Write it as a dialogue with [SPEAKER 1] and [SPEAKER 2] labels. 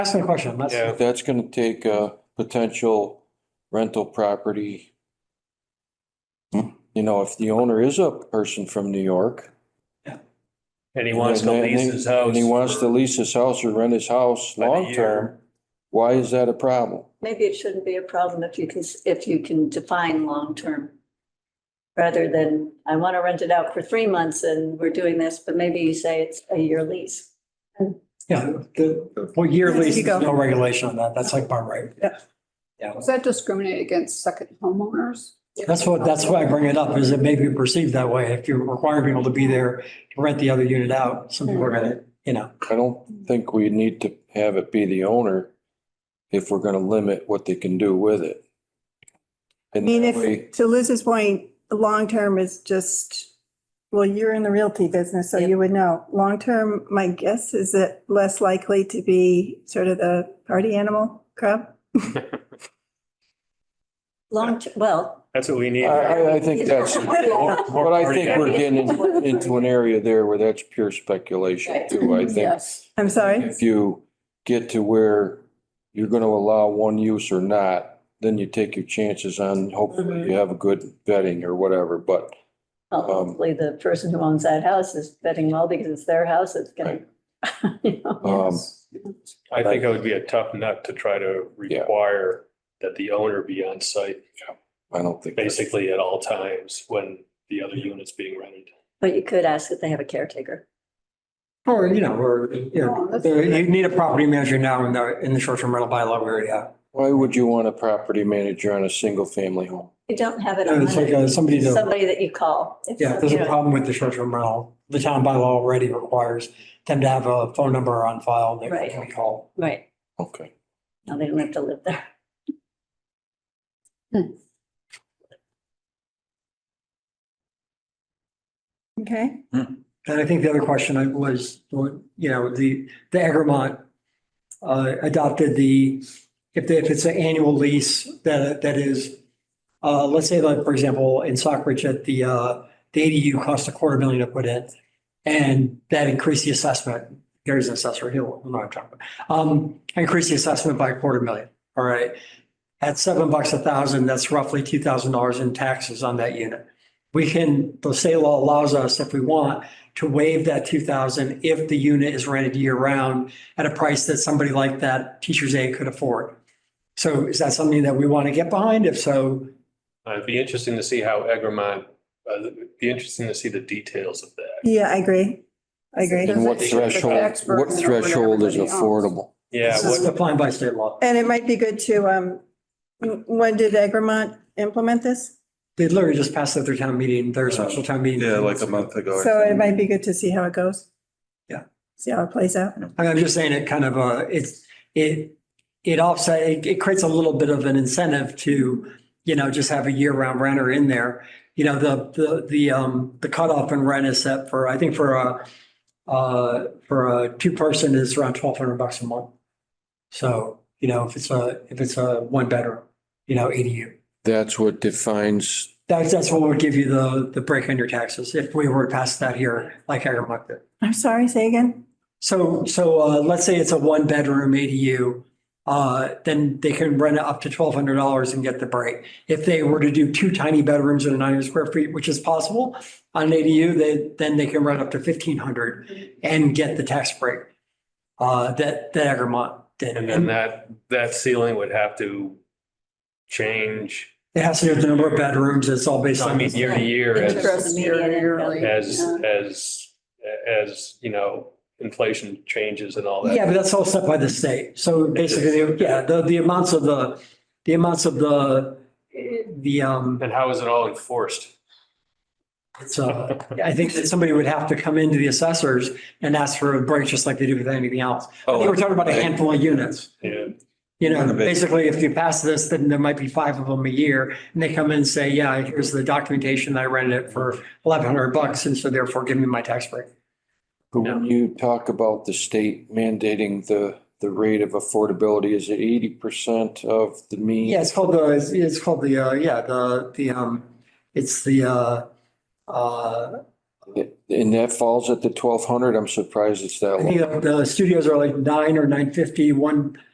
[SPEAKER 1] Ask me a question. Let's-
[SPEAKER 2] Yeah.
[SPEAKER 3] That's gonna take a potential rental property. You know, if the owner is a person from New York.
[SPEAKER 2] And he wants to
[SPEAKER 3] and- and-
[SPEAKER 2] lease his house.
[SPEAKER 3] And he wants to lease his house or rent his house
[SPEAKER 2] By the
[SPEAKER 3] long term, why is that a problem?
[SPEAKER 4] Maybe it shouldn't be a problem if you can, if you can define long-term. Rather than, I want to rent it out for three months and we're doing this, but maybe you say it's a year lease.
[SPEAKER 1] Yeah, the, what year
[SPEAKER 5] Yes, you
[SPEAKER 1] lease,
[SPEAKER 5] go.
[SPEAKER 1] there's no regulation on that. That's like bar right.
[SPEAKER 5] Yeah.
[SPEAKER 1] Yeah,
[SPEAKER 6] Does that discriminate against second homeowners?
[SPEAKER 1] that's what, that's why I bring it up, is it may be perceived that way. If you require people to be there to rent the other unit out, some people are gonna, you know.
[SPEAKER 3] I don't think we need to have it be the owner if we're gonna limit what they can do with it.
[SPEAKER 5] I
[SPEAKER 3] And
[SPEAKER 5] mean,
[SPEAKER 3] that way-
[SPEAKER 5] if, to Liz's point, the long-term is just, well, you're in the realty business, so
[SPEAKER 4] Yeah.
[SPEAKER 5] you would know. Long-term, my guess is it less likely to be sort of the party animal crowd?
[SPEAKER 4] Long, well,
[SPEAKER 2] That's what we need.
[SPEAKER 3] I, I, I think that's,
[SPEAKER 4] More-
[SPEAKER 3] but I think we're getting in- into an area there where that's pure speculation too, I think.
[SPEAKER 4] yes.
[SPEAKER 5] I'm sorry?
[SPEAKER 3] If you get to where you're gonna allow one use or not, then you take your chances on hopefully you have a good vetting or whatever, but
[SPEAKER 4] Well, Hopefully the person who owns that house is betting well because it's their house, it's gonna. you know.
[SPEAKER 3] um,
[SPEAKER 2] I think it would be a tough nut to try to
[SPEAKER 3] Yeah.
[SPEAKER 2] require that the owner be on site
[SPEAKER 3] I don't think. that's-
[SPEAKER 2] basically at all times when the other unit's being rented.
[SPEAKER 4] But you could ask if they have a caretaker.
[SPEAKER 1] Or, you know, or, you
[SPEAKER 5] Oh,
[SPEAKER 1] know, there- you need a property manager now in the, in the short-term rental bylaw where, yeah.
[SPEAKER 3] Why would you want a property manager on a single family home?
[SPEAKER 4] You don't have it
[SPEAKER 1] It's like
[SPEAKER 4] on
[SPEAKER 1] uh, somebody to.
[SPEAKER 4] somebody that you call. If
[SPEAKER 1] Yeah, if there's
[SPEAKER 4] you
[SPEAKER 1] a
[SPEAKER 4] know,
[SPEAKER 1] problem with the short-term rental. The town bylaw already requires them to have a phone number on file that
[SPEAKER 4] Right.
[SPEAKER 1] can be called.
[SPEAKER 4] Right,
[SPEAKER 3] Okay.
[SPEAKER 4] no, they don't have to live there.
[SPEAKER 5] Okay.
[SPEAKER 1] And I think the other question I was, you know, the, the Egremont uh, adopted the, if, they- if it's an annual lease that, that is, uh, let's say like, for example, in Stockbridge at the, uh, the ADU cost a quarter million to put in. And that increased the assessment. There's an assessor, he'll, he'll know what I'm talking about. Um, increased the assessment by a quarter million, all right? At seven bucks a thousand, that's roughly two thousand dollars in taxes on that unit. We can, the state law allows us, if we want, to waive that two thousand if the unit is rented year round at a price that somebody like that teacher's aide could afford. So is that something that we want to get behind? If so,
[SPEAKER 2] Uh, It'd be interesting to see how Egremont, uh, it'd be interesting to see the details of that.
[SPEAKER 5] Yeah, I agree. I agree.
[SPEAKER 3] And what
[SPEAKER 6] Does it- does it
[SPEAKER 3] threshold,
[SPEAKER 6] expert
[SPEAKER 3] what
[SPEAKER 6] know what
[SPEAKER 3] threshold is
[SPEAKER 6] everybody owns?
[SPEAKER 3] affordable?
[SPEAKER 2] Yeah,
[SPEAKER 1] this is
[SPEAKER 2] what,
[SPEAKER 1] defined by state law.
[SPEAKER 5] And it might be good to, um, w- when did Egremont implement this?
[SPEAKER 1] They literally just passed it through town meeting, their special town meeting.
[SPEAKER 7] Yeah, like a month ago. I
[SPEAKER 5] So it
[SPEAKER 7] think.
[SPEAKER 5] might be good to see how it goes.
[SPEAKER 1] Yeah.
[SPEAKER 5] See how it plays out.
[SPEAKER 1] I mean, I'm just saying it kind of, uh, it's, it, it offset, it, it creates a little bit of an incentive to, you know, just have a year-round renter in there. You know, the, the, the, um, the cutoff in rent is set for, I think for a, uh, for a two-person is around twelve hundred bucks a month. So, you know, if it's a, if it's a one-bedroom, you know, ADU.
[SPEAKER 3] That's what defines,
[SPEAKER 1] That's, that's what would give you the, the break on your taxes if we were to pass that here, like Agrimark did.
[SPEAKER 5] I'm sorry, say again?
[SPEAKER 1] So, so uh, let's say it's a one bedroom ADU, uh, then they can rent it up to twelve hundred dollars and get the break. If they were to do two tiny bedrooms in a nine hundred square feet, which is possible on an ADU, they, then they can rent up to fifteen hundred and get the tax break. Uh, that, that Egremont did.
[SPEAKER 2] and then that, that ceiling would have to change,
[SPEAKER 1] It has to do with the number of bedrooms. It's all based
[SPEAKER 2] I
[SPEAKER 1] on.
[SPEAKER 2] mean, year to year
[SPEAKER 4] In
[SPEAKER 2] as,
[SPEAKER 4] terms of the median income, you
[SPEAKER 2] as,
[SPEAKER 4] know.
[SPEAKER 2] as, as, you know, inflation changes and all that.
[SPEAKER 1] Yeah, but that's all set by the state. So basically, yeah, the, the amounts of the, the amounts of the, the, um. uh,
[SPEAKER 2] And how is it all enforced?
[SPEAKER 1] So I think that somebody would have to come into the assessors and ask for a break, just like they do with anything else. I think We're talking about a handful of units.
[SPEAKER 2] Yeah.
[SPEAKER 1] You
[SPEAKER 7] Oh, Kind
[SPEAKER 1] know,
[SPEAKER 7] of it.
[SPEAKER 1] basically, if you pass this, then there might be five of them a year, and they come in and say, yeah, here's the documentation, I rented it for eleven hundred bucks, and so therefore give me my tax break.
[SPEAKER 3] but when you talk about the state mandating the, the rate of affordability, is it eighty percent of the mean?
[SPEAKER 1] Yeah, it's called the, it's- it's called the, uh, yeah, the, the, um, it's the, uh, uh,
[SPEAKER 3] And that falls at the twelve hundred? I'm surprised it's that
[SPEAKER 1] I
[SPEAKER 3] low.
[SPEAKER 1] think the- the studios are like nine or nine fifty, one